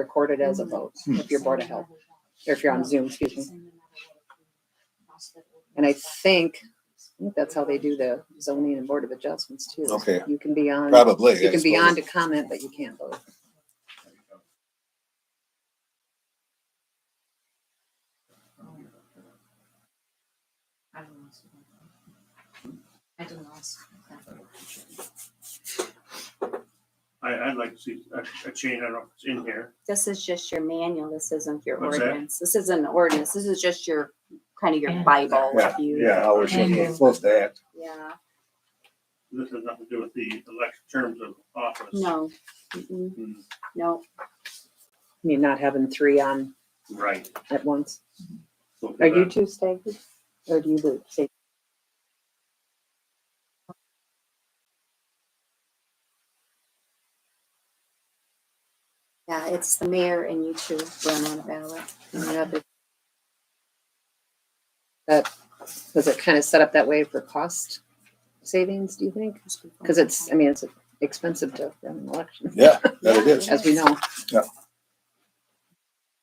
recorded as a Hmm. vote Hmm. if you're Board of Health, or if you're on Zoom, excuse me. And I think, I think that's how they do the zoning and Board of Adjustments too. Okay. You can be on, Probably. I you can be on to suppose. comment, but you can't vote. I don't know. I, I'd like to see a, a change, I don't know if it's in here. This is just your manual. This isn't your What's that? ordinance. This isn't an ordinance. This is just your, kind of your Bible. if you- Yeah, I was And- supposed to act. Yeah, This has nothing to do with the elect terms of office. no. Mm-mm. Hmm, No, I mean, not having three on Right. at once. So for Are you that- two staying? Or do you leave? Say, yeah, it's the mayor and you two run on a ballot. And the other- Was it kind of set up that way for cost savings, do you think? Because it's, I mean, it's expensive to run an election, Yeah, that it is. as we know.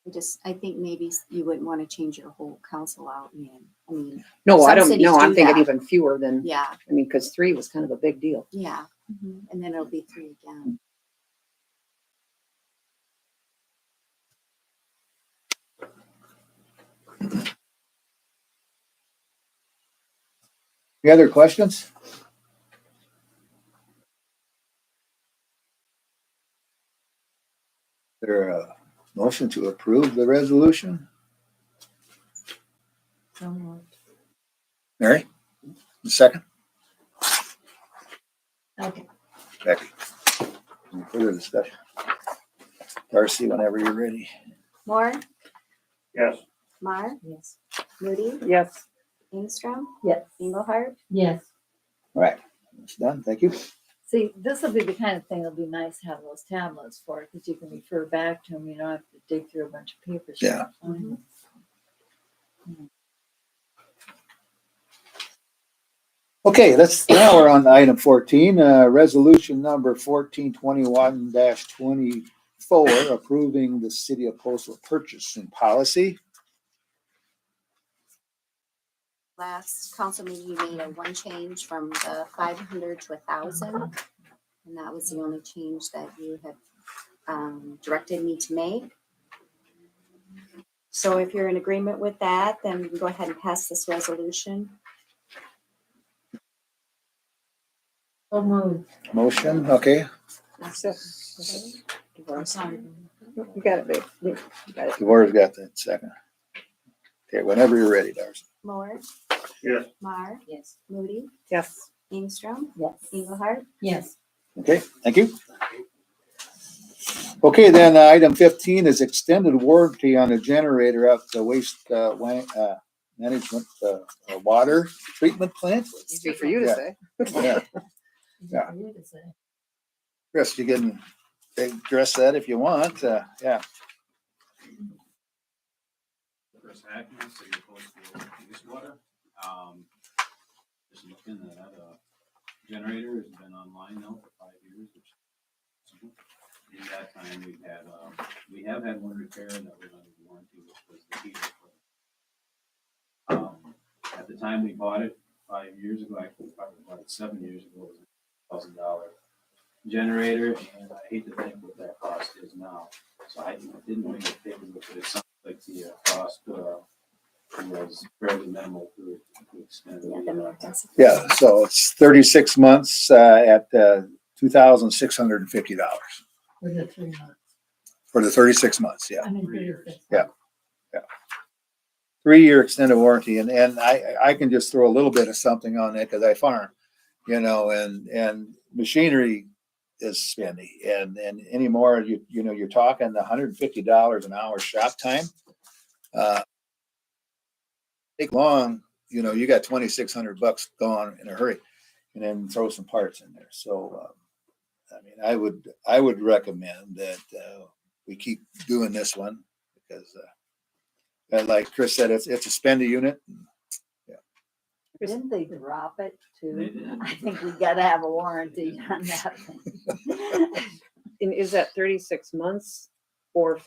I just, I think maybe you wouldn't want to change your whole council out, man. I mean, No, I Some don't, cities no, I'm do thinking that. even fewer than, yeah, I mean, because three was kind of a big deal. yeah. And then it'll be three again. Any other questions? There a motion to approve the resolution? Mary? Second? Okay. Becky? Any Further discussion? Darcy, whenever you're ready. Moore, Yes, Mar, Yes. Moody, Yes. Ingstrom, Yes. Engelhardt. Yes. All right, it's done. Thank you. See, this will be the kind of thing that'll be nice to have those tablets for, because you can refer back to them, you don't have to dig through a bunch of papers. to Yeah. find them. Okay, let's, now we're on item fourteen, uh, resolution number fourteen twenty-one twenty-four, approving the city of postal purchasing policy. Last council meeting, you made a one change from the five hundred to a thousand. And that was the only change that you had um, directed me to make. So if you're in agreement with that, then we can go ahead and pass this resolution. So moved. Motion, okay, I'm sorry. You got it, babe. You got it. Devora's got that second. Okay, whenever you're ready, Darcy. Moore, yes, Mar, Yes. Moody, Yes. Ingstrom, Yes. Engelhardt. Yes. Okay, thank you. Okay, then, uh, item fifteen is extended warranty on the generator at the waste, uh, wa- uh, management, uh, uh, water treatment plant. Easy for you to Yeah. say. Yeah, Yeah. You can say. Chris, you can address that if you want, uh, yeah. Chris Atkins, City of Postville, Eastwater. Um, just looking at that, uh, generator has been online now for five years, which in that time, we've had, um, we have had one repair that was under warranty, which was the heater. Um, at the time we bought it, five years ago, actually, probably about seven years ago, it was a thousand dollar generator, and I hate to think what that cost is now. So I didn't make a paperwork, but it sounds like the uh, cost, uh, was fairly minimal to to extend. uh, Yeah, the mayor has it. Yeah, so it's thirty-six months, uh, at, uh, two thousand six hundred and fifty dollars With the three months. for the thirty-six months, yeah. I mean, Three three years. years. Yeah. Three-year extended warranty, and, and I, I can just throw a little bit of something on that, cause I farm, you know, and, and machinery is spendy, and, and anymore, you, you know, you're talking hundred and fifty dollars an hour shop time. Uh Take long, you know, you got twenty-six hundred bucks gone in a hurry, and then throw some parts in there, so, um, I mean, I would, I would recommend that, uh, we keep doing this one because, uh, and like Chris said, it's, it's a spendy unit. Didn't they drop it They too? did. I think we gotta have a warranty on that thing. And is that thirty-six months or